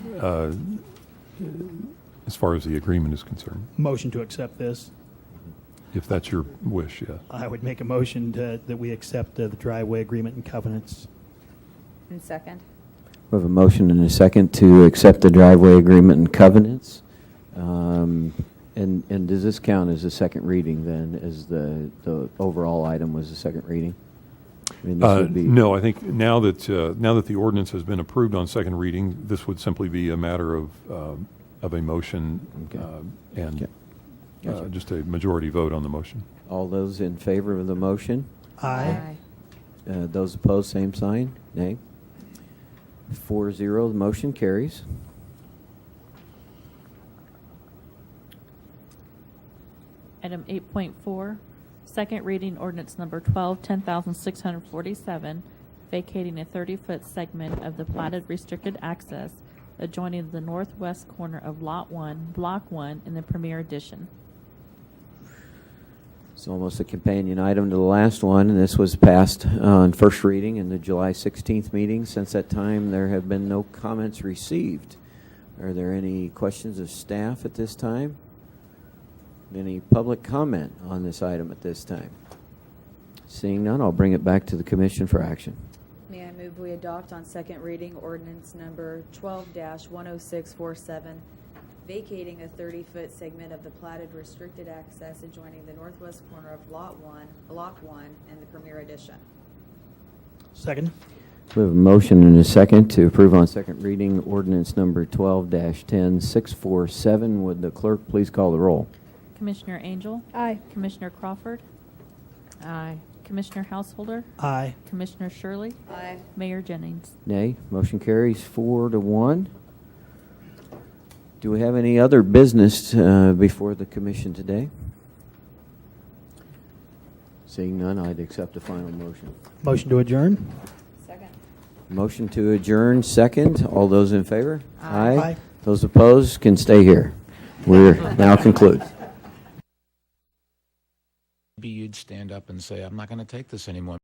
uh, as far as the agreement is concerned, Motion to accept this. if that's your wish, yes. I would make a motion to, that we accept uh, the driveway agreement and covenants. And second. We have a motion and a second to accept the driveway agreement and covenants. Um, And, and does this count as a second reading then, as the, the overall item was a second reading? I mean, this Uh, would be- No, I think now that, uh, now that the ordinance has been approved on second reading, this would simply be a matter of, um, of a motion Okay. uh, and Okay. uh, Gotcha. just a majority vote on the motion. All those in favor of the motion? Aye. Uh, Those opposed, same sign? Nay? Four zero, the motion carries. Item 8.4, second reading ordinance number 12, 10,647, vacating a 30-foot segment of the platted restricted access adjoining the northwest corner of Lot 1, Block 1, in the Premier Edition. It's almost a companion item to the last one, and this was passed uh, on first reading in the July 16th meeting. Since that time, there have been no comments received. Are there any questions of staff at this time? Any public comment on this item at this time? Seeing none, I'll bring it back to the commission for action. May I move we adopt on second reading ordinance number 12-10647, vacating a 30-foot segment of the platted restricted access adjoining the northwest corner of Lot 1, Block 1, and the Premier Edition. Second? We have a motion and a second to approve on second reading ordinance number 12-10647. Would the clerk please call the roll? Commissioner Angel? Aye. Commissioner Crawford? Aye. Commissioner Householder? Aye. Commissioner Shirley? Aye. Mayor Jennings? Nay. Motion carries four to one. Do we have any other business uh, before the commission today? Seeing none, I'd accept a final motion. Motion to adjourn? Second. Motion to adjourn, second. All those in favor? Aye. Aye. Those opposed can stay here. We're now concluded. Maybe you'd stand up and say, I'm not going to take this anymore.